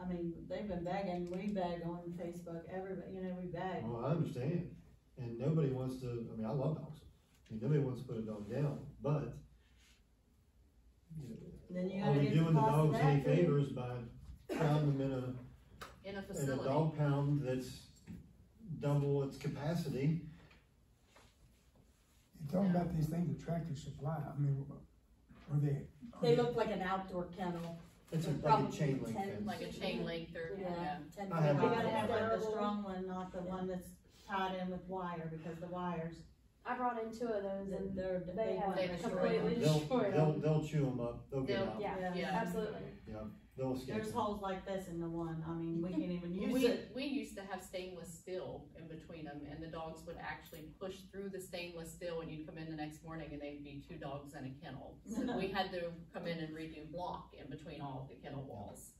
I mean, they've been bagging, we bag on Facebook, everybody, you know, we bag. Well, I understand, and nobody wants to, I mean, I love dogs, I mean, nobody wants to put a dog down, but. you know, Then you Are gotta we get the doing the cost of dogs any that too. favors by pounding them in a in in a a facility. dog pound that's double its capacity. You're talking about these things at Tractor Supply, I mean, are they? are They look like an outdoor kennel. It's a- like a Probably chain link ten, fence. Like a chain link through, yeah. Yeah, ten I foot. have We one. gotta have like the Terrible. strong one, not the one that's tied in with wire, because the wires, I brought in two of those th- and they're, They they have want to completely- They'll, destroy they'll, them. they'll chew them up, they'll get They'll- out, yeah, Yeah. absolutely. they'll escape. There's holes like this in the one, I mean, we can't even use We, it. we used to have stainless steel in between them and the dogs would actually push through the stainless steel and you'd come in the next morning and they'd be two dogs in a kennel. So we had to come in and redo block in between all of the kennel walls.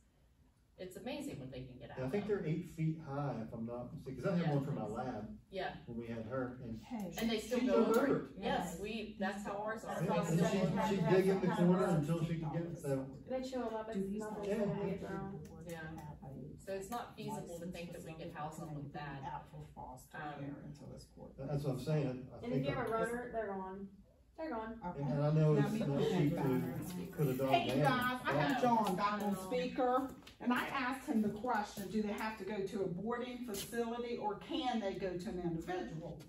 It's amazing what they can get And I out think of. they're eight feet high, if I'm not mistaken, cause I had Yeah. one for my lab Yeah, when we had her, and and they still She go jumped over. it. over. Yes, we, that's how ours are. That's Yeah, awesome. They still go and over she, it. she'd Yeah. dig in the Yeah. corner until she could get, so, They chew them up, it's nothing Yeah. they're gonna get grown. Yeah. So it's not feasible to think that we could house them with that. Out for foster Um, care until it's court. that's what I'm saying, I And if think. you have a I- rotor, they're gone, they're gone. And and I know Now it's we not can cheap have to diners. put a dog down. Hey, you guys, I but- have John back on speaker, and I asked him the question, do they have to go to a boarding facility or can they go to an individual?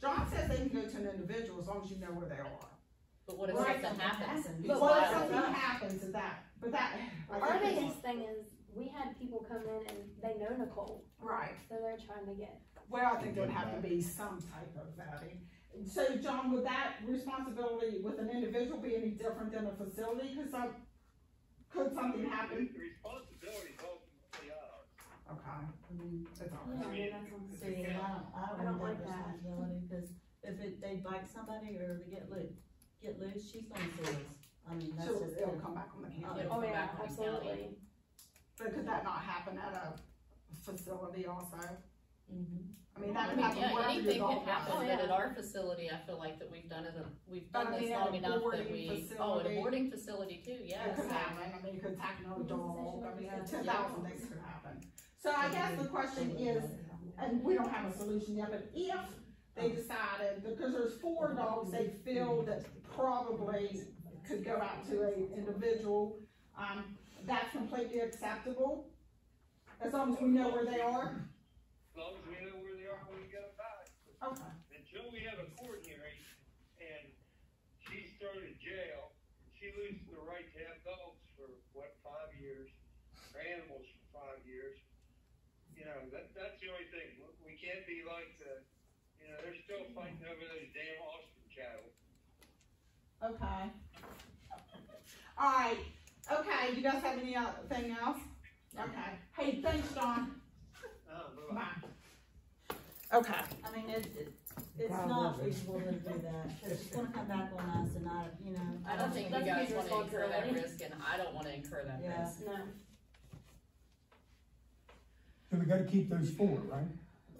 John says they can go to an individual as long as you know where they are. But what if Right. something happens? But What why if would something not? happens to that, but that. I Our think it's- biggest thing is, we had people come in and they know Nicole, Right, so they're trying to get, well, I think there'd have to be some type of vetting. So John, would that responsibility with an individual be any different than a facility? Could some, could something happen? The responsibility is ultimately ours. Okay, that's all Yeah, right. I mean, that's what I'm it's a See, and county. I I don't, I don't don't want that like that. responsibility, cause if it, they bite somebody or they get loose, get loose, she's gonna sue us. I mean, that's So just. it'll come back on the Yeah. county. It'll oh go yeah, back on the county. absolutely. But could that not happen at a facility also? Mhm. I mean, that I could mean, happen yeah, wherever anything you can go. happen, yeah. but at our facility, I feel like that we've done it, we've done But I this mean, at long a enough that boarding we, oh, at a facility- boarding facility too, It yes. could happen, I mean, it could attack another dog, I mean, ten thousand things could happen. So I guess the question is, and we don't have a solution yet, but if Uh-huh. they decided, because there's four dogs they feel that probably could go out to a individual, um, that's completely acceptable, as long as we know where they are, As long as we know where they are when we get them back. okay. Until we have a court hearing and she's thrown in jail, she loses the right to have dogs for, what, five years? Or animals for five years? You know, that, that's the only thing. We- We can't be like the, you know, they're still fighting over those damn ostrich cattle. Okay. All right. Okay. You guys have any other thing else? Okay. Hey, thanks, John. Uh, bye-bye. Bye. Okay. I mean, it, it, it's God not love it. reasonable to do that, cause she's gonna come back on us and I, you know. I don't think you That's guys huge wanna incur that responsibility. risk, and I don't wanna incur that Yeah. risk. No, then we gotta keep those four, right?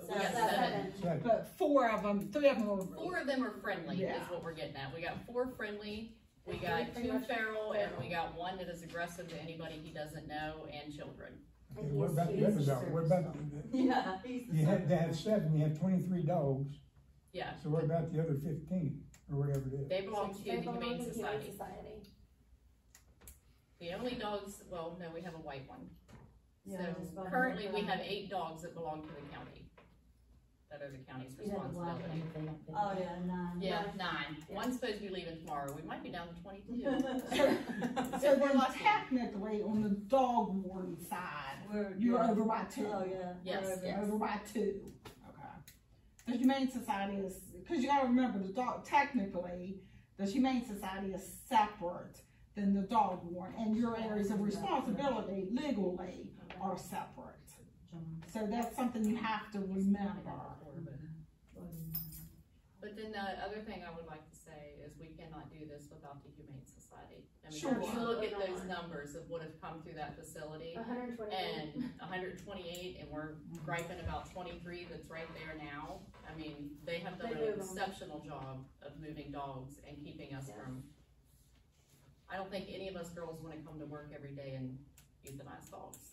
We got Seven. seven, Seven. But four of them, three of them were. four of them are friendly, is Yeah. what we're getting at, we got four friendly, we Three got pretty two much feral, and feral. we got one that is aggressive to anybody he doesn't know, and children. Okay, What about the other dog, what about, the- Yeah, he's. you have to have seven, you have twenty-three dogs, Yeah, so what about the other fifteen, or whatever it is? they belong to the they belong Humane to the Humane Society. Society. The only dogs, well, no, we have a white one. Yeah, just So about currently, we everybody. have eight dogs that belong to the county. That are the county's responsibility. Oh, yeah, nine. Yeah, nine. One's supposed to be leaving tomorrow. We might be down to twenty-two. So We're then lucky. technically on the dog warden side, We're. you're yeah. over by two. Oh, yeah. Yes. We're over. You're Over by two. Okay. The Humane Society is, cause you gotta remember the dog, technically, the Humane Society is separate than the dog warden and your areas of responsibility legally are separate. So that's something you have to remember. But then the other thing I would like to say is we cannot do this without the Humane Society. I mean, Sure. if you look at those numbers of what have come through that facility hundred and twenty. and hundred and twenty-eight, and we're griping about twenty-three that's right there now. I mean, they have done They an move 'em. exceptional job of moving dogs and keeping us Yes. from. I don't think any of us girls wanna come to work every day and euthanize dogs.